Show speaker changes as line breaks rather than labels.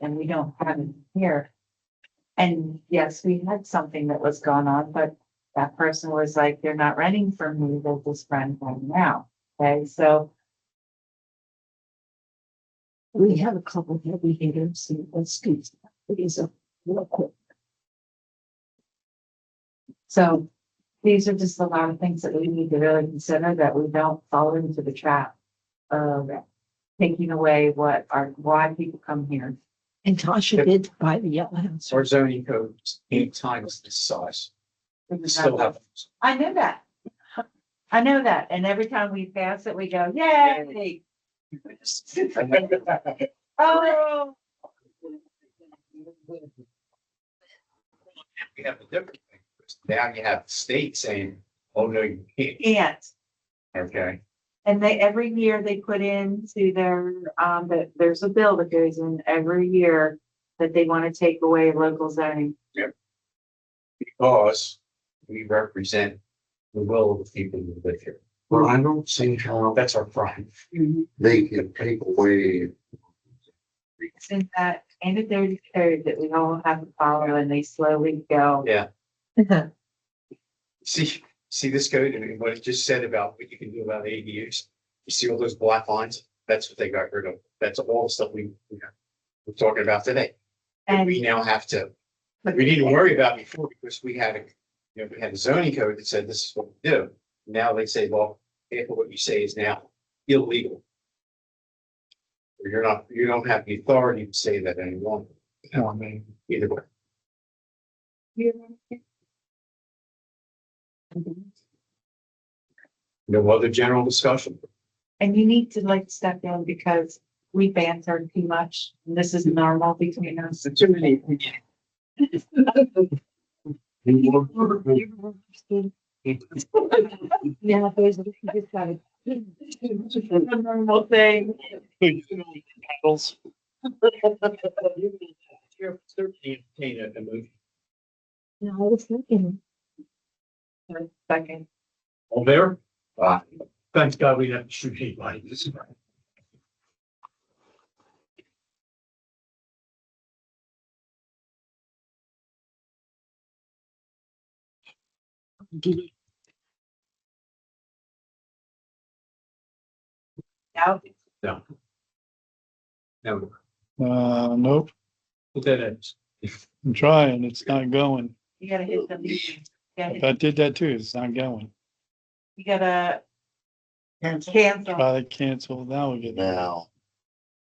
and we don't have it here. And yes, we had something that was gone on, but that person was like, they're not renting from me, they'll just rent right now. Okay, so
We have a couple heavy hitters and let's keep these up real quick.
So these are just a lot of things that we need to really consider that we don't fall into the trap of taking away what our, why people come here.
And Tasha
Yep.
did buy the yellow house.
Our zoning code is eight times this size. We still have.
I know that. I know that. And every time we pass it, we go, yay. Oh,
We have a different thing. Now you have the state saying, oh, no, you can't,
and,
okay?
and they, every year they put into their, um, that there's a bill that goes in every year that they want to take away local zoning.
Because we represent the will of the people who live here.
Well, I don't see how
That's our pride. Mm-hmm.
they can take away,
Since that, and if there's a code that we all have to follow and they slowly go.
Yeah. See, see this code and what it just said about what you can do about ADUs? You see all those black lines? That's what they got rid of. That's all the stuff we, we have- we're talking about today. And we
And,
now have to, we didn't worry about before because we had, a you know, we had a zoning code that said this is what we do. Now they say, well, if what you say is now illegal. Or You're not, you don't have the authority to say that any longer. No, I mean. Either way. No other general discussion.
and you need to like step in because we banter too much. and This is normal between us.
Too many.
you
You're-
know,
you're wrong, Steve. Now, there's, you just got it.
A normal thing.
Certainly entertain a a motion.
No, I was thinking,
Second,
All there? Thanks God we didn't shoot anybody. This is right.
did it
now,
No,
Uh, nope,
put that ends.
I'm trying, it's not going.
you gotta hit the, mute. you gotta, hit-
I did that too, it's not going.
you gotta
Cancel.
cancel.
Try to cancel, now we get.
now.